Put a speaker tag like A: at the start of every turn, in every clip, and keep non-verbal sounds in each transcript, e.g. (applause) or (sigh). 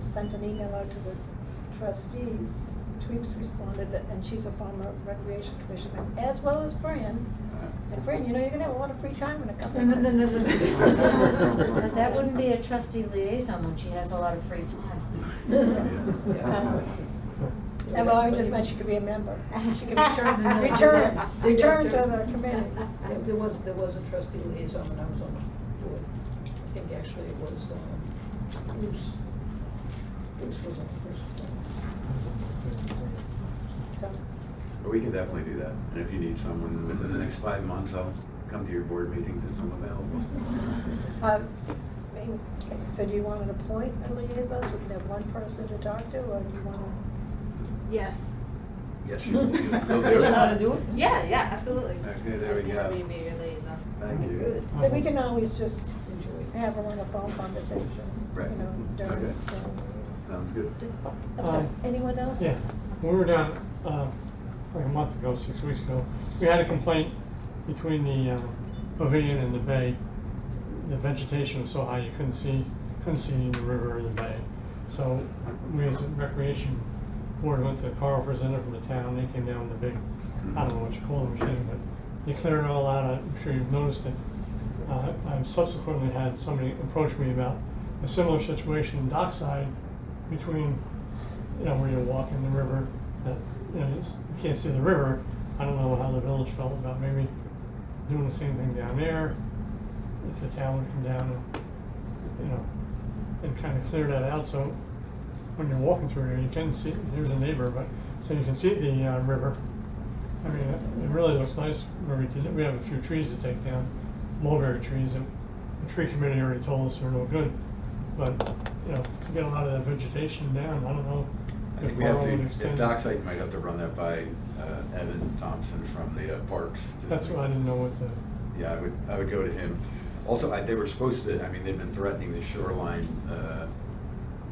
A: sent an email out to the trustees. Tweeps responded that, and she's a former recreation commissioner, as well as Fran. And Fran, you know, you're gonna have a lot of free time in a couple
B: No,
A: of
B: no,
A: minutes.
B: no, no, no. (laughs) But that wouldn't be a
A: trust.
B: trustee liaison when she has a lot of free time.
A: Yeah. well, I just meant she could be a member. She could return,
B: No, no, no.
A: return,
C: They
A: return
C: got
A: to the committee.
C: There- There was, there was a trustee liaison when I was on the board. I think actually it was, uh, Bruce. Bruce was on the first one.
A: So,
D: But we can definitely do that. And if you need someone within the next five months, I'll come to your board meetings if I'm available.
C: (laughs)
A: uh, I mean, so do you want an appoint a liaison, so we can have one person to talk to, or do you wanna?
E: Yes.
D: Yes, you will. You'll do it.
C: You know how to do it?
E: Yeah, yeah, absolutely.
D: Okay, there we
E: I'd be
D: go.
E: happy to be your liaison.
D: Thank you.
C: Good.
A: So we can always just
C: Enjoy it.
A: have her on a phone conversation, you
D: Right.
A: know,
D: Okay.
A: during,
D: Sounds good.
A: i sorry,
F: Um,
A: anyone else?
F: Yeah, when we were down, uh, probably a month ago, six weeks ago, we had a complaint between the, uh, pavilion and the bay. The vegetation was so high you couldn't see, couldn't see the river or the bay. So we as a recreation board went to Carl Frisender from the town, they came down with a big, I don't know what you call the machine, but they cleared it all out, I'm sure you've noticed it. Uh, I've subsequently had somebody approach me about a similar situation in Dockside between you know, where you're walking the river, that, you know, it's- you can't see the river. I don't know how the village felt about maybe doing the same thing down there, if the town would come down and, you know, and kind of clear that out, so when you're walking through there, you can see, here's a neighbor, but, so you can see the, uh, river. I mean, it it really looks nice where we did it. We have a few trees to take down, mulberry trees, and the tree committee already told us they're no good. But, you know, to get a lot of that vegetation down, I don't know.
D: I
F: if
D: think we have
F: Carl would
D: to,
F: extend-
D: at Dockside, you might have to run that by uh, Evan Thompson from the uh, Parks. just
F: That's
D: to-
F: why I didn't know what the,
D: Yeah, I would, I would go to him. Also, I, they were supposed to, I mean, they've been threatening the shoreline uh,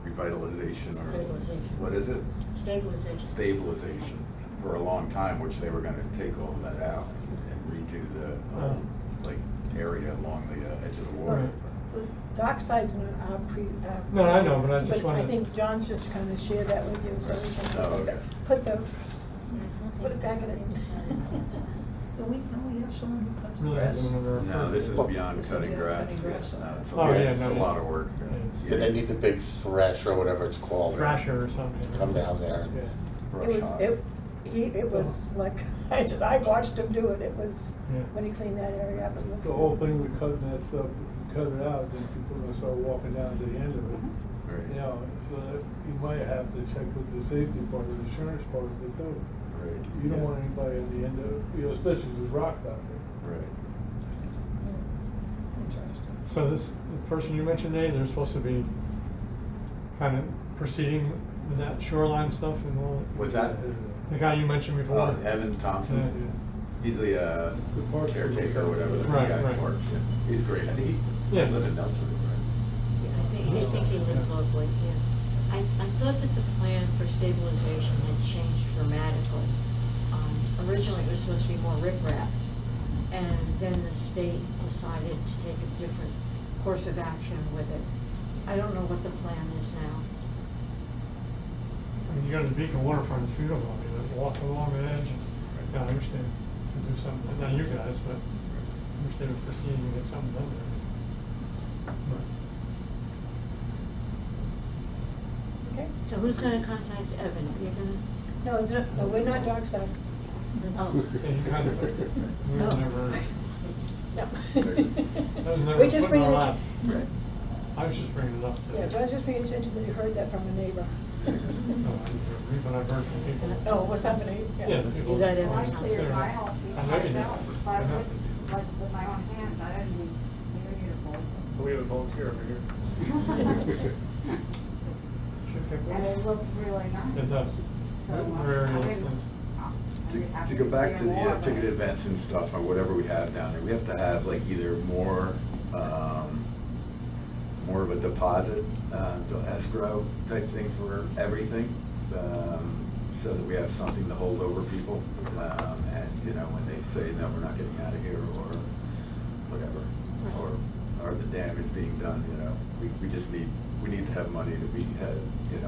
D: revitalization or.
B: Stabilization.
D: What is it?
B: Stabilization.
D: Stabilization for a long time, which they were gonna take all of that out and redo the,
F: Oh.
D: um, like, area along the uh, edge of the water.
A: Dockside's not our pre, our.
F: No, I know, but I just
A: But I
F: wanted-
A: think John's just gonna share that with you, so we can.
D: Oh, okay.
A: Put the,
B: Mm-hmm.
A: put it back in
B: (laughs)
A: it.
C: Do we, don't we have someone who cuts the
F: really
C: grass?
F: hasn't been ever.
D: No, this is beyond
C: This is
D: cutting
C: beyond
D: grass.
C: cutting
D: Yeah,
C: grass.
D: no, it's a
F: Oh,
D: lot,
F: yeah,
D: it's a
F: no,
D: lot
F: yeah.
D: of work.
F: Yeah, it's-
D: Yeah.
G: But they need the big thresh or whatever it's called.
F: Thrasher or something.
G: Come down there.
F: Yeah.
D: Brush
A: It was,
D: hog.
A: it, he, it was like, (laughs) I just, I watched him do it, it was,
F: Oh. Yeah.
A: when he cleaned that area up. it looked-
H: The whole thing with cutting that stuff, cut it out, then people are gonna start walking down to the end of it.
D: Right.
H: You know, so that you might have to check with the safety part, the insurance part of it too.
D: Right.
H: You don't
D: Yeah.
H: want anybody at the end of, you know, especially if there's rocks out there.
D: Right.
F: So this, the person you mentioned, Dave, they're supposed to be kind of proceeding with that shoreline stuff and all,
D: Was that,
F: the guy you mentioned before.
D: uh, Evan
F: Yeah.
D: Thompson? He's the uh,
H: The park-
D: caretaker or whatever, the
F: Right,
D: guy
F: right.
D: who works, yeah. He's great. I think he
F: Yeah.
D: lives in Nelson, right?
B: I think, I think he lives locally, yeah. I, I thought that the plan for stabilization had changed dramatically. Um, Originally, it was supposed to be more riprap, and then the state decided to take a different course of action with it. I don't know what the plan is now.
F: I mean, you go to the Beacon waterfront, it's beautiful, I mean, they walk along the edge, and, yeah, I wish they could do something, not you guys, but I wish they would proceed and get something done there. But-
A: Okay,
B: So who's gonna contact Evan? You're gonna,
A: no, it's not, no, we're not Dockside,
B: oh,
F: Yeah, you kind of, we were never,
A: no. (laughs)
F: was never
A: We're just
F: put in
A: bringing
F: our
A: it,
F: lap.
A: to-
D: Right.
F: I was just bringing it up. that-
A: yeah, John's just bringing it to attention that you heard that from a neighbor.
F: No, I didn't read, But I've heard from people.
A: Oh, what's happening?
F: Yeah, the people.
B: You got it.
I: I
F: Yeah.
I: cleared my house
F: I know you did.
I: myself,
F: I
I: I
F: know.
I: would, like, with my own hands, I didn't need, you need a
J: We have a volunteer over here.
I: bowl.
F: Should pick one.
I: And it looked really nice.
F: It does.
I: So, uh,
F: Very
I: I
F: nice.
I: didn't- I- I didn't
D: To,
I: have
D: to go back to the
I: clear more,
D: uh,
I: but-
D: ticket events and stuff, or whatever we have down there, we have to have like either more, um, more of a deposit, uh, to escrow type thing for everything, um, so that we have something to hold over people. Um, and, you know, when they say, no, we're not getting out of here, or whatever,
B: Right.
D: or, or the damage being done, you know, we, we just need, we need to have money to be, uh,